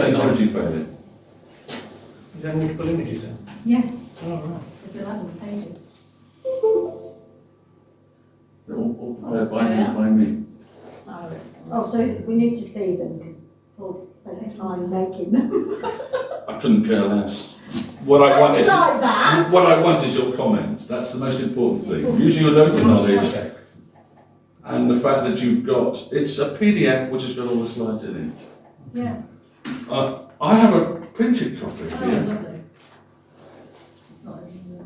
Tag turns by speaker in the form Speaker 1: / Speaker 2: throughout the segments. Speaker 1: you find it?
Speaker 2: You have multiple images then?
Speaker 3: Yes,
Speaker 2: Oh, right.
Speaker 3: it's eleven pages.
Speaker 1: They're all- all prepared by me, by me.
Speaker 4: Oh, so we need to see them because Paul's spent time making them.
Speaker 1: I couldn't care less. What I want is,
Speaker 4: Like that.
Speaker 1: what I want is your comments, that's the most important thing. Using your local knowledge and the fact that you've got, it's a PDF which has got all the slides in it.
Speaker 3: Yeah.
Speaker 1: Uh, I have a printed copy
Speaker 3: Oh,
Speaker 1: here.
Speaker 3: lovely. It's not in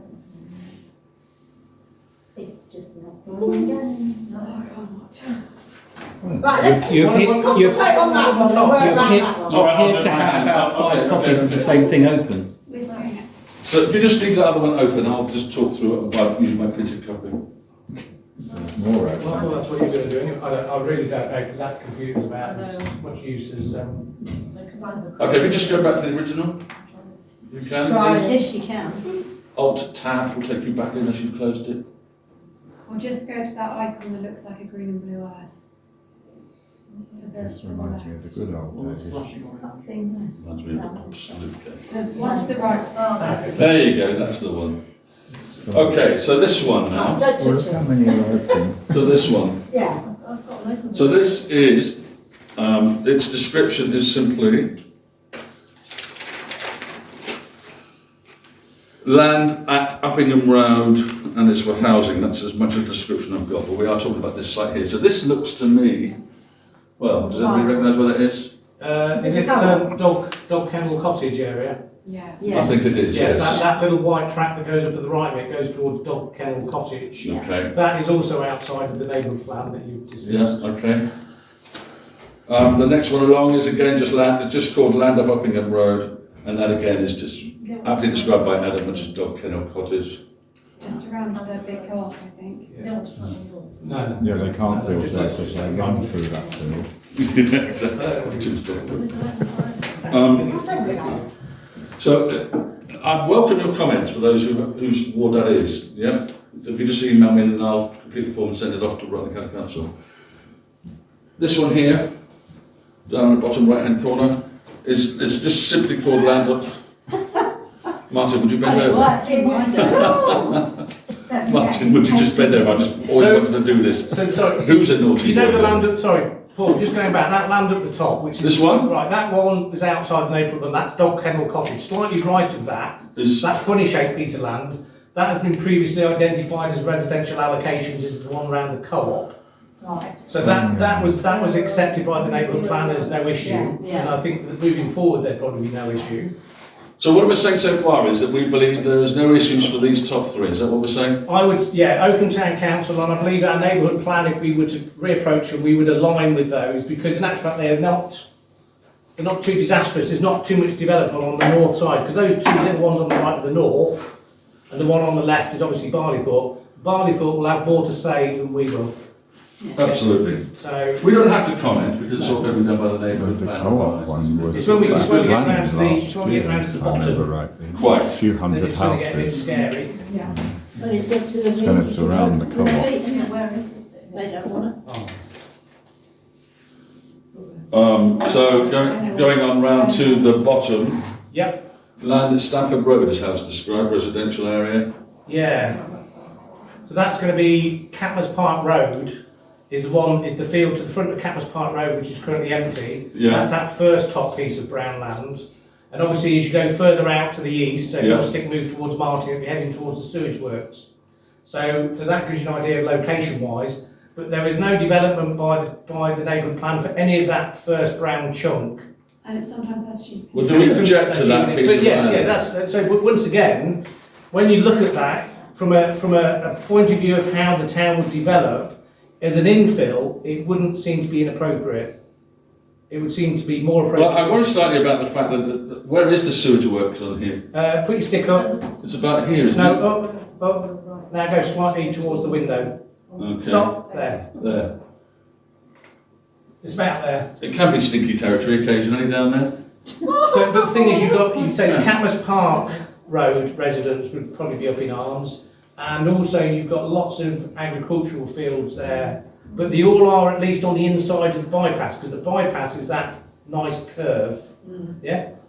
Speaker 3: there.
Speaker 4: It's just not going again.
Speaker 3: No, I can't watch it.
Speaker 4: Right, let's just
Speaker 5: You appear, you,
Speaker 4: concentrate on that one, the
Speaker 5: you
Speaker 4: words like
Speaker 5: appear,
Speaker 4: that one.
Speaker 5: you appear to have about five copies of the same thing open.
Speaker 3: Where's that?
Speaker 1: So if you just leave that other one open, I'll just talk through it by using my printed copy.
Speaker 6: All right.
Speaker 2: Well, I thought that's what you were going to do anyway. I, I really don't know because that computer's
Speaker 3: I
Speaker 2: about
Speaker 3: know,
Speaker 2: as much use as, um,
Speaker 3: because I have a.
Speaker 1: Okay, if you just go back to the original, you
Speaker 3: Try
Speaker 1: can.
Speaker 3: it if you can.
Speaker 1: Alt tab will take you back unless you've closed it.
Speaker 7: Or just go to that icon that looks like a green and blue earth. To the,
Speaker 6: This
Speaker 7: to the
Speaker 6: reminds me of the
Speaker 7: left.
Speaker 6: good old days.
Speaker 2: Oh,
Speaker 3: That thing
Speaker 1: Reminds me of absolute game.
Speaker 3: there.
Speaker 7: One to the right.
Speaker 3: Oh, there.
Speaker 1: There you go, that's the one. Okay, so this one now,
Speaker 4: Don't
Speaker 6: Well,
Speaker 4: touch
Speaker 6: how
Speaker 4: it.
Speaker 6: many are open?
Speaker 1: so this one.
Speaker 4: Yeah.
Speaker 3: I've got loads of
Speaker 1: So this is, um, its description is simply land at Uppingham Road, and it's for housing, that's as much a description I've got, but we are talking about this site here. So this looks to me, well, does anybody recognise what it is?
Speaker 2: uh, is
Speaker 4: it
Speaker 2: it,
Speaker 4: Callum?
Speaker 2: um, Dog, Dog Kennel Cottage area?
Speaker 7: Yeah.
Speaker 1: I think it is,
Speaker 2: Yes, that,
Speaker 1: yes.
Speaker 2: that little white track that goes up at the right, it goes towards Dog Kennel Cottage.
Speaker 1: Okay,
Speaker 2: That is also outside of the neighbourhood plan that you've
Speaker 1: yeah,
Speaker 2: discussed.
Speaker 1: okay. Um, the next one along is again just land, it's just called Land of Uppingham Road, and that again is just aptly described by Adam, which is Dog Kennel Cottage.
Speaker 7: It's just around the big co-op, I think.
Speaker 3: No, it's not yours.
Speaker 2: No, no.
Speaker 6: Yeah, they can't
Speaker 2: No,
Speaker 6: build
Speaker 2: just-
Speaker 6: that because they run through that tunnel.
Speaker 1: Yeah, exactly. Which is
Speaker 3: But
Speaker 1: different.
Speaker 3: there's a left side.
Speaker 1: Um,
Speaker 4: I'll send it out.
Speaker 1: so uh, I welcome your comments for those who, whose ward that is, yeah? So If you just email me and I'll complete the form and send it off to Rutland County Council. This one here, down in the bottom right-hand corner, is, is just simply called land up. Martin, would you bend
Speaker 3: But it
Speaker 1: over?
Speaker 3: worked in mine.
Speaker 4: Don't forget,
Speaker 1: Martin, would you just bend over? I just always
Speaker 2: So-
Speaker 1: wanted to do this.
Speaker 2: So, sorry,
Speaker 1: Who's a naughty?
Speaker 2: you know the
Speaker 1: boy?
Speaker 2: land at, sorry, Paul, just going back, that land at the top, which is.
Speaker 1: This one?
Speaker 2: Right, that one is outside the neighbourhood plan, that's Dog Kennel Cottage, slightly right of that.
Speaker 1: Is-
Speaker 2: That funny shaped piece of land, that has been previously identified as residential allocations, is the one around the co-op.
Speaker 4: Right.
Speaker 2: So that, that was, that was accepted by the neighbourhood plan as no issue.
Speaker 4: Yeah,
Speaker 3: yeah.
Speaker 2: And I think that moving forward, there'd probably be no issue.
Speaker 1: So what we're saying so far is that we believe there is no issues for these top three, is that what we're saying?
Speaker 2: I would, yeah, Oakham Town Council, and I believe our neighbourhood plan, if we were to reapproach them, we would align with those, because in actual fact, they are not, they're not too disastrous, there's not too much development on the north side, because those two little ones on the right of the north, and the one on the left is obviously Barleythorpe, Barleythorpe will have more to say than we will,
Speaker 1: Absolutely.
Speaker 2: so.
Speaker 1: We don't have to comment because it's all going to be done by the neighbourhood
Speaker 6: The
Speaker 1: plan.
Speaker 6: co-op one was.
Speaker 2: It's when we- it's when we get
Speaker 6: running
Speaker 2: round to the-
Speaker 6: last
Speaker 2: it's when we get
Speaker 6: year,
Speaker 2: round to the
Speaker 6: if I remember
Speaker 2: bottom.
Speaker 6: rightly.
Speaker 1: Quite.
Speaker 6: A few
Speaker 2: then
Speaker 6: hundred
Speaker 2: it's gonna get a bit
Speaker 6: houses.
Speaker 2: Scary.
Speaker 7: Yeah.
Speaker 4: Well, it's up to the.
Speaker 6: It's gonna surround the
Speaker 4: people.
Speaker 6: co-op.
Speaker 3: Isn't it? Where is this bit?
Speaker 4: They don't wanna.
Speaker 1: Oh. Um, so going, going on round to the bottom,
Speaker 2: Yep,
Speaker 1: land at Stafford Road is how it's described, residential area.
Speaker 2: yeah. So that's going to be Catmas Park Road is the one, is the field to the front of Catmas Park Road, which is currently empty.
Speaker 1: Yeah.
Speaker 2: That's that first top piece of brown land. And obviously, as you go further out to the east, so if
Speaker 1: Yeah.
Speaker 2: your stick moves towards Martin, you'll be heading towards the sewage works. So, so that gives you an idea of location wise, but there is no development by the, by the neighbourhood plan for any of that first brown chunk.
Speaker 7: And it sometimes has sheep.
Speaker 1: Well, do we object to that piece
Speaker 2: But
Speaker 1: of
Speaker 2: yes, yeah,
Speaker 1: land?
Speaker 2: that's, so, but once again, when you look at that, from a, from a, a point of view of how the town would develop, as an infill, it wouldn't seem to be inappropriate. It would seem to be more
Speaker 1: Well, I
Speaker 2: appropriate.
Speaker 1: worry slightly about the fact that, the- the- where is the sewage works on here?
Speaker 2: Uh, put your stick up,
Speaker 1: It's about here, isn't it?
Speaker 2: no, up, up, now go slightly towards the window,
Speaker 1: Okay,
Speaker 2: stop, there,
Speaker 1: there.
Speaker 2: it's about there.
Speaker 1: It can be stinky territory occasionally down there.
Speaker 2: So, but the thing is, you've got, you'd say the Catmas Park Road residents would probably be up in arms, and also you've got lots of agricultural fields there, but they all are at least on the inside of the bypass, because the bypass is that nice curve, yeah?